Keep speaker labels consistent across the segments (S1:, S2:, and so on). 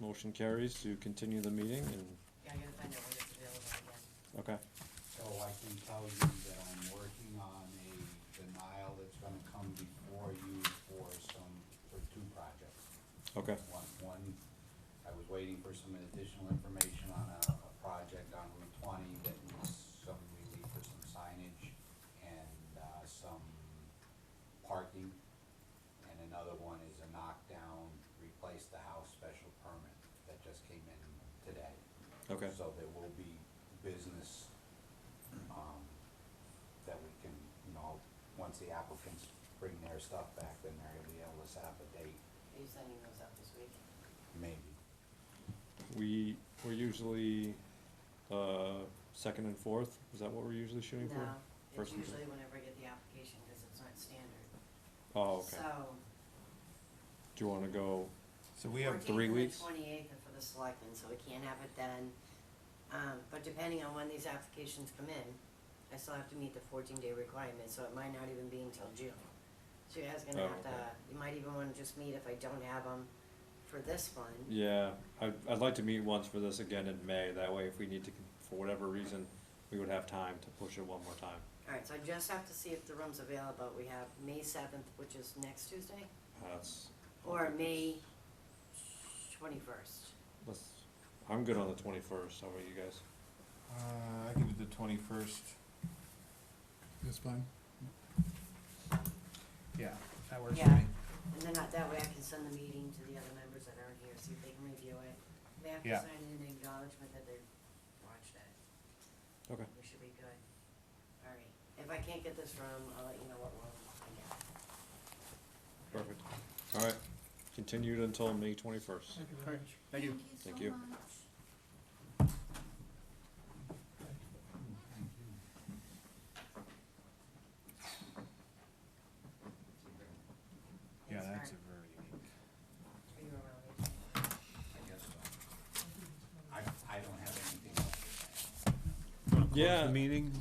S1: motion carries to continue the meeting and,
S2: Yeah, I gotta find out when it's available again.
S1: okay.
S3: So I can tell you that I'm working on a denial that's gonna come before you for some, for two projects.
S1: Okay.
S3: One, one, I was waiting for some additional information on a, a project on Route twenty that needs some relief for some signage and, uh, some parking. And another one is a knockdown, replace the house special permit that just came in today.
S1: Okay.
S3: So there will be business, um, that we can, you know, once the applicants bring their stuff back, then they're gonna be able to set up a date,
S2: Are you sending those out this week?
S3: maybe.
S1: We, we're usually, uh, second and fourth, is that what we're usually shooting for?
S2: No, it's
S1: First and
S2: usually whenever I get the application, cause it's not standard.
S1: Oh, okay.
S2: So.
S1: Do you wanna go,
S4: So we have,
S1: three weeks?
S2: Twenty-eighth are for the selectmen, so we can't have it then. Um, but depending on when these applications come in, I still have to meet the fourteen-day requirement, so it might not even be until June. So you guys are
S1: Oh,
S2: gonna have to,
S1: okay.
S2: you might even wanna just meet if I don't have them for this one.
S1: yeah, I'd, I'd like to meet once for this again in May, that way if we need to, for whatever reason, we would have time to push it one more time.
S2: Alright, so I just have to see if the room's available. We have May seventh, which is next Tuesday,
S1: That's,
S2: or May twenty-first.
S1: let's, I'm good on the twenty-first, how about you guys?
S4: uh, I can do the twenty-first.
S5: That's fine.
S4: Yeah, that works for
S2: Yeah.
S4: me.
S2: And then I- that way I can send the meeting to the other members that aren't here, see if they can review it. They have to
S4: Yeah.
S2: sign an acknowledgement that they watched it.
S1: Okay.
S2: We should be good. Alright, if I can't get this room, I'll let you know what room I get.
S1: Perfect. All right, continued until May twenty-first.
S4: Thank you.
S1: Thank you.
S4: Yeah,
S2: Thanks,
S4: that's a
S2: Mark.
S4: very unique.
S2: Are you around? Lisa?
S3: I guess so. I, I don't have anything else to say.
S1: Yeah.
S6: meeting?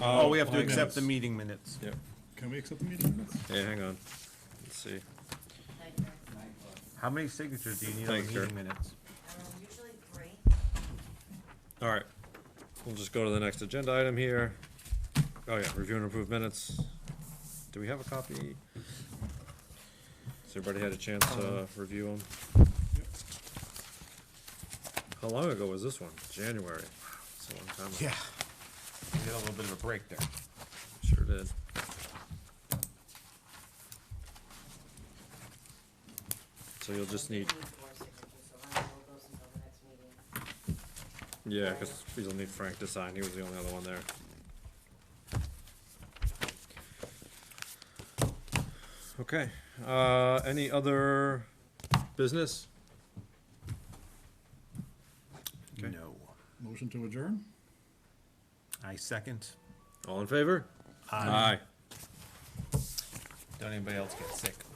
S1: Uh,
S6: Oh, we have to
S1: hang on.
S6: accept the meeting minutes.
S1: Yep.
S5: Can we accept the meeting minutes?
S1: Hey, hang on. Let's see.
S2: Thank you.
S6: How many signatures do you need on the
S1: Thanks, sir.
S6: meeting minutes?
S2: Um, usually three.
S1: All right, we'll just go to the next agenda item here. Oh yeah, review and approve minutes. Do we have a copy? Has everybody had a chance
S6: Uh-huh.
S1: to review them? How long ago was this one? January. Wow, It's a long time ago.
S4: We had a little bit of a break there.
S1: Sure did. So you'll just
S2: Um, we
S1: need,
S2: four signatures, so I'll hold those until the next meeting.
S1: yeah, because you'll need Frank to sign, he was the only other one there. Okay, uh, any other business? Okay.
S4: No.
S5: Motion to adjourn?
S4: I second.
S1: All in favor? Aye.
S4: Don't anybody else get sick.